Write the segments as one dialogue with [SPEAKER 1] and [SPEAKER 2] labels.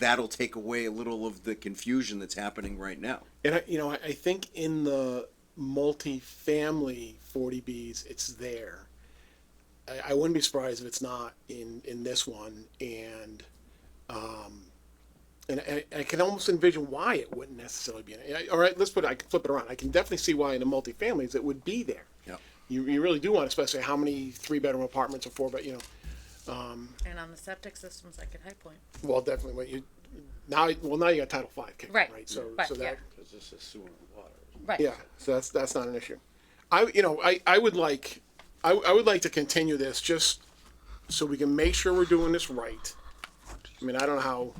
[SPEAKER 1] that'll take away a little of the confusion that's happening right now.
[SPEAKER 2] And I, you know, I, I think in the multi-family 40Bs, it's there. I, I wouldn't be surprised if it's not in, in this one. And, um, and I, I can almost envision why it wouldn't necessarily be. In it. All right, let's put it, I can flip it around. I can definitely see why in the multifamilies it would be there.
[SPEAKER 1] Yep.
[SPEAKER 2] You, you really do want to specify how many three-bedroom apartments or four, but you know,
[SPEAKER 3] And on the septic systems, I could high point.
[SPEAKER 2] well, definitely what you, now, well, now you got Title Five kicking,
[SPEAKER 3] Right,
[SPEAKER 2] right? So,
[SPEAKER 3] but
[SPEAKER 2] so
[SPEAKER 3] yeah.
[SPEAKER 2] that,
[SPEAKER 4] Because this is sewer and water.
[SPEAKER 3] Right.
[SPEAKER 2] Yeah, so that's that's not an issue. I you know I I would like I I would like to continue this just so we can make sure we're doing this right. I mean I don't know how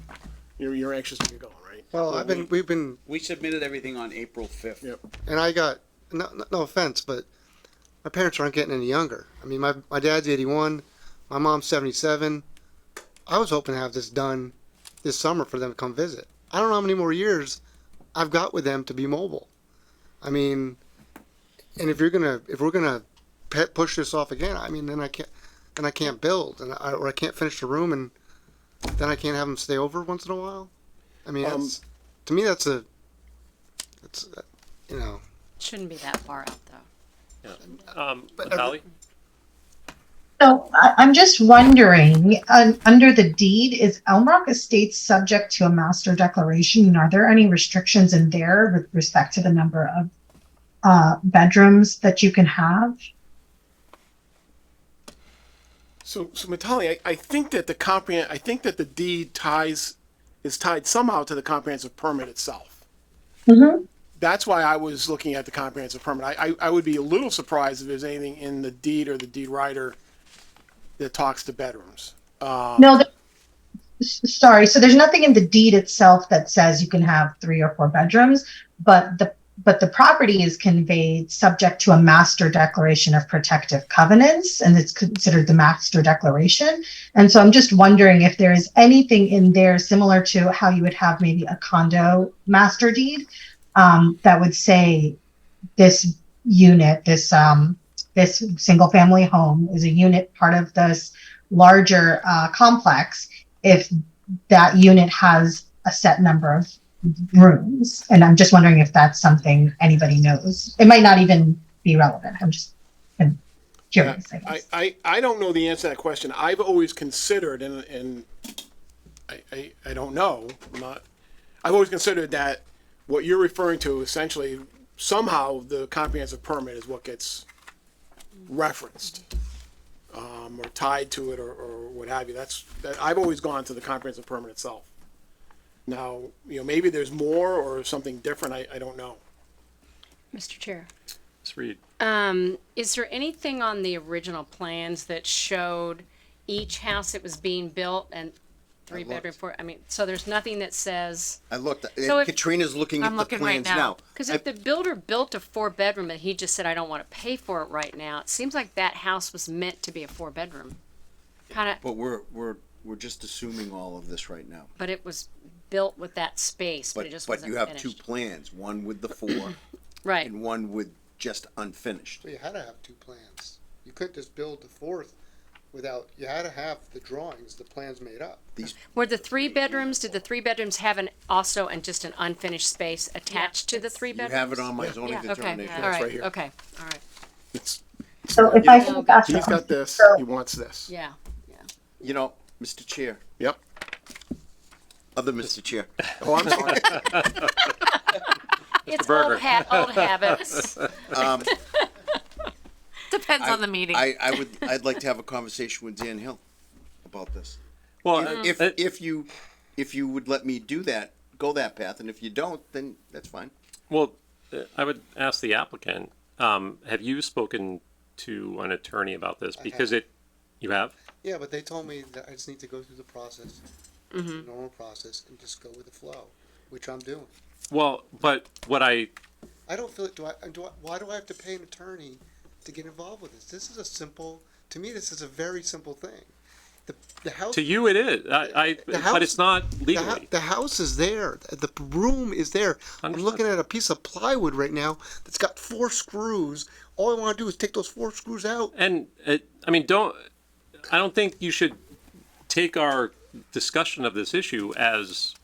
[SPEAKER 2] you're you're anxious to get going, right?
[SPEAKER 5] Well, I've been, we've been,
[SPEAKER 4] We submitted everything on April fifth.
[SPEAKER 2] Yep.
[SPEAKER 5] and I got, no, no- no offense, but my parents aren't getting any younger. I mean, my, my dad's 81, my mom's 77. I was hoping to have this done this summer for them to come visit. I don't know how many more years I've got with them to be mobile. I mean, and if you're gonna, if we're gonna pe- push this off again, I mean, then I can't, then I can't build, and I, or I can't finish the room, and then I can't have them stay over once in a while. I mean,
[SPEAKER 2] Um,
[SPEAKER 5] that's, to me, that's a, that's, uh, you know,
[SPEAKER 6] Shouldn't be that far out though.
[SPEAKER 7] Um,
[SPEAKER 5] But-
[SPEAKER 7] Natalie?
[SPEAKER 8] So I, I'm just wondering, un- under the deed, is Elmrock Estates subject to a master declaration? And are there any restrictions in there with respect to the number of uh, bedrooms that you can have?
[SPEAKER 2] So so Mitali, I, I think that the comprehend I think that the deed ties is tied somehow to the comprehensive permit itself.
[SPEAKER 8] Mm-hmm.
[SPEAKER 2] That's why I was looking at the comprehensive permit. I, I, I would be a little surprised if there's anything in the deed or the deed writer that talks to bedrooms.
[SPEAKER 8] No, the, s- sorry. So there's nothing in the deed itself that says you can have three or four bedrooms, but the but the property is conveyed subject to a master declaration of protective covenants, and it's considered the master declaration. And so I'm just wondering if there is anything in there similar to how you would have maybe a condo master deed um, that would say this unit, this um, this single family home is a unit part of this larger uh, complex if that unit has a set number of rooms. And I'm just wondering if that's something anybody knows. It might not even be relevant. I'm just I'm curious. I
[SPEAKER 2] I,
[SPEAKER 8] guess.
[SPEAKER 2] I, I don't know the answer to that question. I've always considered, and, and I, I, I don't know, I'm not, I've always considered that what you're referring to essentially somehow the comprehensive permit is what gets referenced um, or tied to it or, or what have you. That's, that, I've always gone to the comprehensive permit itself. Now, you know, maybe there's more or something different. I, I don't know.
[SPEAKER 6] Mr. Chair.
[SPEAKER 7] Let's read.
[SPEAKER 6] Um, is there anything on the original plans that showed each house that was being built and three bedroom, four, I mean, so there's nothing that says,
[SPEAKER 1] I looked. eh,
[SPEAKER 6] So if-
[SPEAKER 1] Katrina's looking
[SPEAKER 3] I'm
[SPEAKER 1] at
[SPEAKER 3] looking
[SPEAKER 1] the
[SPEAKER 3] right
[SPEAKER 1] plans
[SPEAKER 3] now.
[SPEAKER 1] now.
[SPEAKER 6] cause if the builder built a four bedroom and he just said, I don't wanna pay for it right now, it seems like that house was meant to be a four bedroom. Kinda,
[SPEAKER 1] But we're we're we're just assuming all of this right now.
[SPEAKER 6] but it was built with that space, but
[SPEAKER 1] But
[SPEAKER 6] it just
[SPEAKER 1] but
[SPEAKER 6] wasn't
[SPEAKER 1] you have two
[SPEAKER 6] finished.
[SPEAKER 1] plans, one with the four
[SPEAKER 6] Right,
[SPEAKER 1] and one with just unfinished.
[SPEAKER 5] So you had to have two plans. You couldn't just build the fourth without, you had to have the drawings, the plans made up.
[SPEAKER 6] were the three bedrooms, did the three bedrooms have an, also, and just an unfinished space attached to the three
[SPEAKER 1] You
[SPEAKER 6] bedrooms?
[SPEAKER 1] have it on my zoning
[SPEAKER 6] Yeah, okay,
[SPEAKER 1] determination.
[SPEAKER 6] all
[SPEAKER 2] right
[SPEAKER 6] right,
[SPEAKER 2] here.
[SPEAKER 6] okay, all right,
[SPEAKER 2] It's,
[SPEAKER 8] So if I
[SPEAKER 6] know,
[SPEAKER 8] think that's
[SPEAKER 2] he's got this. He wants this.
[SPEAKER 6] yeah.
[SPEAKER 1] You know, Mr. Chair,
[SPEAKER 2] Yep.
[SPEAKER 1] other Mr. Chair.
[SPEAKER 2] Oh, I'm sorry.
[SPEAKER 6] It's
[SPEAKER 7] Berger.
[SPEAKER 6] old hat, old habits.
[SPEAKER 3] Depends on the meeting.
[SPEAKER 1] I, I would I'd like to have a conversation with Dan Hill about this.
[SPEAKER 7] Well, uh,
[SPEAKER 1] If
[SPEAKER 7] uh,
[SPEAKER 1] if you if you would let me do that, go that path, and if you don't, then that's fine.
[SPEAKER 7] well, uh, I would ask the applicant, um, have you spoken to an attorney about this? Because it, you have?
[SPEAKER 5] Yeah, but they told me that I just need to go through the process, the normal process, and just go with the flow, which I'm doing.
[SPEAKER 7] Well, but what I,
[SPEAKER 5] I don't feel, do I, do I, why do I have to pay an attorney to get involved with this? This is a simple, to me, this is a very simple thing. The, the house.
[SPEAKER 7] to you it is, I, I,
[SPEAKER 5] house-
[SPEAKER 7] but it's not
[SPEAKER 5] The, hou-
[SPEAKER 7] legally.
[SPEAKER 5] the house is there. The the room is there. I'm
[SPEAKER 7] Understood.
[SPEAKER 5] looking at a piece of plywood right now that's got four screws. All I want to do is take those four screws out.
[SPEAKER 7] And, uh, I mean, don't, I don't think you should take our discussion of this issue as